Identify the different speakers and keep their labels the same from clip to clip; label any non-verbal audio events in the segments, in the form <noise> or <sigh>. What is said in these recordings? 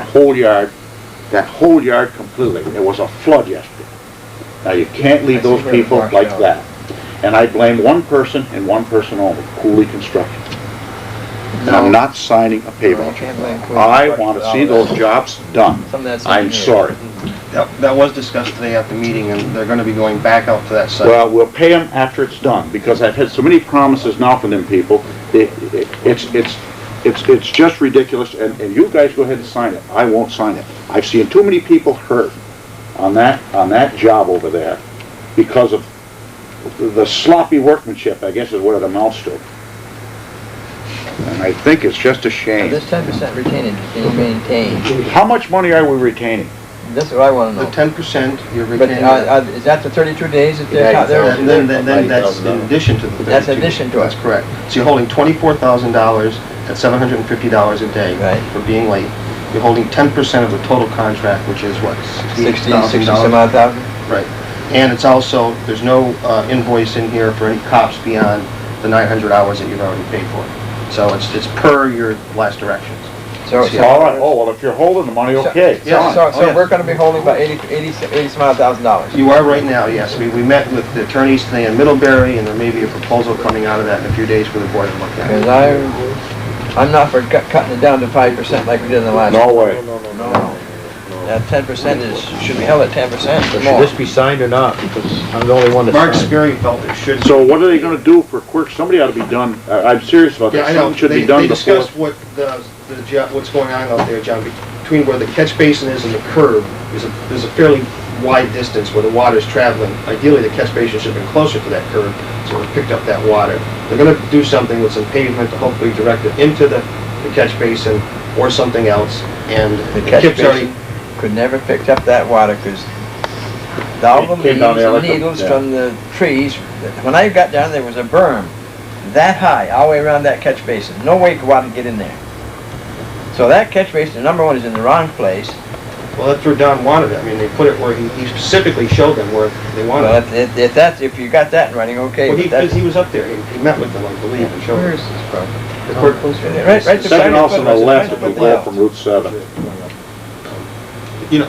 Speaker 1: whole yard, that whole yard completely. It was a flood yesterday. Now, you can't leave
Speaker 2: I see
Speaker 1: those
Speaker 2: where it
Speaker 1: people
Speaker 2: washed
Speaker 1: like
Speaker 2: out.
Speaker 1: that. And I blame one person and one person only, Cooley Construction. And I'm not signing a pay voucher. I want to see those jobs done.
Speaker 3: Some of that's.
Speaker 1: I'm sorry.
Speaker 2: That that was discussed today at the meeting, and they're gonna be going back out to that site.
Speaker 1: Well, we'll pay them after it's done, because I've had so many promises now from them people. It- it- It's, it's, it's, it's just ridiculous, and, and you guys go ahead and sign it. I won't sign it. I've seen too many people hurt on that, on that job over there because of the sloppy workmanship, I guess is what it amounts to. And I think it's just a shame.
Speaker 3: This ten percent retained, can you maintain?
Speaker 1: How much money are we retaining?
Speaker 3: That's what I wanna
Speaker 2: The
Speaker 3: know.
Speaker 2: ten percent, you're
Speaker 3: But, uh,
Speaker 2: retaining.
Speaker 3: uh, is that the thirty-two days that they're,
Speaker 4: Yeah,
Speaker 3: out there?
Speaker 2: Then, then- then- then that's in addition to the thirty-two.
Speaker 3: That's addition to it.
Speaker 2: That's correct. So you're holding twenty-four thousand dollars at seven hundred and fifty dollars a day.
Speaker 3: Right.
Speaker 2: For being late. You're holding ten percent of the total contract, which is what, sixty
Speaker 3: Sixty,
Speaker 2: thousand
Speaker 3: sixty-some
Speaker 2: dollars?
Speaker 3: odd thousand?
Speaker 2: Right. And it's also, there's no uh, invoice in here for any cops beyond the nine hundred hours that you've already paid for. So it's, it's per your last directions.
Speaker 3: So, so.
Speaker 1: All right, oh, well, if you're holding the money, okay.
Speaker 3: So,
Speaker 2: Yeah.
Speaker 3: so,
Speaker 2: Oh, yeah.
Speaker 3: so we're gonna be holding about eighty, eighty, eighty some odd thousand dollars.
Speaker 2: You are right now, yes. We, we met with the attorneys today in Middlebury, and there may be a proposal coming out of that in a few days for the board to look
Speaker 3: Cause
Speaker 2: at.
Speaker 3: I, I'm not for cut- cutting it down to five percent like we did in the last.
Speaker 1: No way.
Speaker 3: No. That ten percent is, should be held at ten percent
Speaker 4: So
Speaker 3: or
Speaker 4: Should
Speaker 3: more.
Speaker 4: this be signed or not? Because I'm the only one that
Speaker 2: Mark
Speaker 4: signed.
Speaker 2: Sperry felt it should.
Speaker 1: So what are they gonna do for quirks? Somebody ought to be done, I- I'm serious about
Speaker 2: Yeah,
Speaker 1: this,
Speaker 2: I know.
Speaker 1: something should
Speaker 2: They-
Speaker 1: be done
Speaker 2: They
Speaker 1: before.
Speaker 2: discussed what the, the, jo- what's going on out there, John, between where the catch basin is and the curb, is a, there's a fairly wide distance where the water's traveling. Ideally, the catch basin should have been closer to that curb, so it picked up that water. They're gonna do something with some pavement to hopefully direct it into the, the catch basin or something else, and
Speaker 3: The catch
Speaker 2: Kip's already
Speaker 3: basin could never picked up that water, cause the- all the
Speaker 1: It came down
Speaker 3: leaves and
Speaker 1: there like a-
Speaker 3: needles
Speaker 1: yeah.
Speaker 3: from the trees, when I got down, there was a berm that high, all the way around that catch basin, no way could water get in there. So that catch basin, number one, is in the wrong place,
Speaker 2: Well, that's where Don wanted it. I mean, they put it where he he specifically showed them where they
Speaker 3: well,
Speaker 2: wanted it.
Speaker 3: if- if, if that's, if you got that in writing, okay,
Speaker 2: Well, he,
Speaker 3: but that's.
Speaker 2: because he was up there. He he met with them, I believe, and showed
Speaker 3: Where
Speaker 2: them.
Speaker 3: is this from?
Speaker 2: The court-
Speaker 3: Right, right.
Speaker 1: Second house on the left, if
Speaker 3: Right,
Speaker 1: you go from Route 7.
Speaker 2: You know,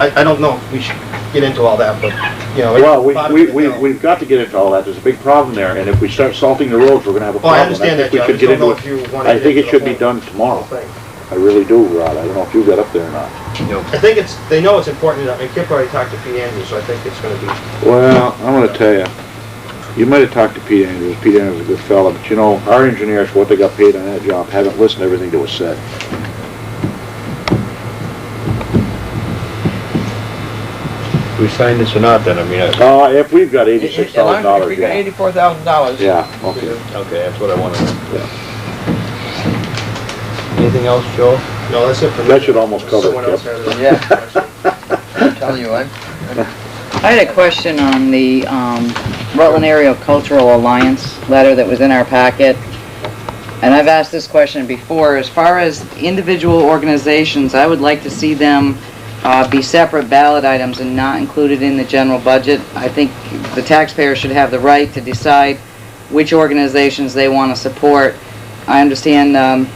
Speaker 2: I, I don't know if we should get into all that, but, you know. it-
Speaker 1: Well, we, we,
Speaker 2: you
Speaker 1: we,
Speaker 2: know.
Speaker 1: we've got to get into all that, there's a big problem there, and if we start salting the roads, we're gonna have a
Speaker 2: Well,
Speaker 1: problem.
Speaker 2: Oh, I understand that,
Speaker 1: think we should
Speaker 2: John. I just
Speaker 1: get
Speaker 2: don't know
Speaker 1: into
Speaker 2: if you want to.
Speaker 1: I think it should be done tomorrow. I really do, Rod, I don't know if you got up there or not.
Speaker 2: I think it's, they know it's important, I mean, Kip already talked to Pete Andrews, so I think it's gonna be,
Speaker 1: Well, I'm gonna tell you, you might have talked to Pete Andrews, Pete Andrews is a good fella, but you know, our engineers, what they got paid on that job, haven't listened to everything that was said.
Speaker 4: We signed this or not then, I mean, I-
Speaker 1: Uh, if we've got
Speaker 3: As
Speaker 1: eighty-six thousand
Speaker 3: long as we
Speaker 1: dollars,
Speaker 3: got
Speaker 1: yeah.
Speaker 3: eighty-four thousand dollars.
Speaker 1: Yeah, okay.
Speaker 4: okay, that's what I wanted. Anything else, Joe?
Speaker 2: no, that's it for me.
Speaker 1: That should almost cover it,
Speaker 2: Someone else
Speaker 1: Kip.
Speaker 2: has it.
Speaker 3: Yeah.
Speaker 2: <laughs>
Speaker 3: I'm telling you, I'm,
Speaker 5: I had a question on the um, Rutland Area Cultural Alliance letter that was in our packet. And I've asked this question before, as far as individual organizations, I would like to see them uh, be separate ballot items and not included in the general budget. I think the taxpayer should have the right to decide which organizations they want to support. I understand um,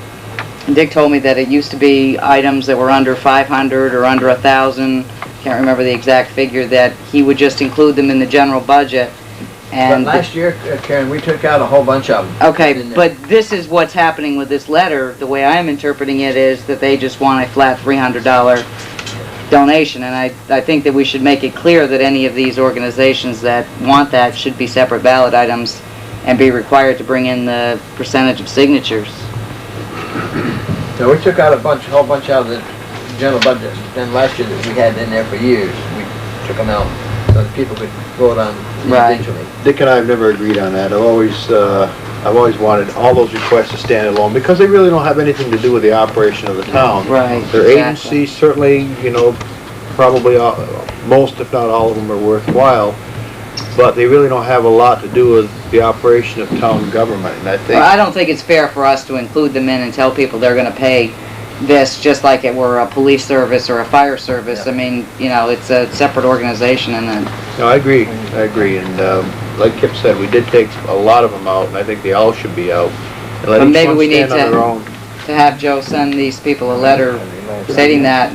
Speaker 5: Dick told me that it used to be items that were under 500 or under 1,000, can't remember the exact figure, that he would just include them in the general budget.
Speaker 3: but
Speaker 5: And the
Speaker 3: last year, uh, Karen, we took out a whole bunch of them.
Speaker 5: Okay,
Speaker 3: in there.
Speaker 5: but this is what's happening with this letter, the way I'm interpreting it is that they just want a flat three hundred dollar donation, and I, I think that we should make it clear that any of these organizations that want that should be separate ballot items and be required to bring in the percentage of signatures.
Speaker 3: So we took out a bunch, a whole bunch out of the general budget, then last year that we had in there for years, we took them out, so that people could vote on
Speaker 5: Right.
Speaker 3: individually.
Speaker 4: Dick and I have never agreed on that. I've always, uh, I've always wanted all those requests to stand alone because they really don't have anything to do with the operation of the town.
Speaker 5: Right,
Speaker 4: Their
Speaker 5: exactly.
Speaker 4: agencies certainly, you know, probably all, most if not all of them are worthwhile, but they really don't have a lot to do with the operation of town government. And I think
Speaker 5: Well, I don't think it's fair for us to include them in and tell people they're gonna pay this, just like it were a police service or a fire service. I mean, you know, it's a separate organization and then
Speaker 4: No, I agree, I agree, and um, like Kip said, we did take a lot of them out, and I think they all should be out. And let
Speaker 5: But
Speaker 4: each
Speaker 5: maybe
Speaker 4: one
Speaker 5: we need
Speaker 4: stand on
Speaker 5: to-
Speaker 4: their own.
Speaker 5: to have Joe send these people a letter stating that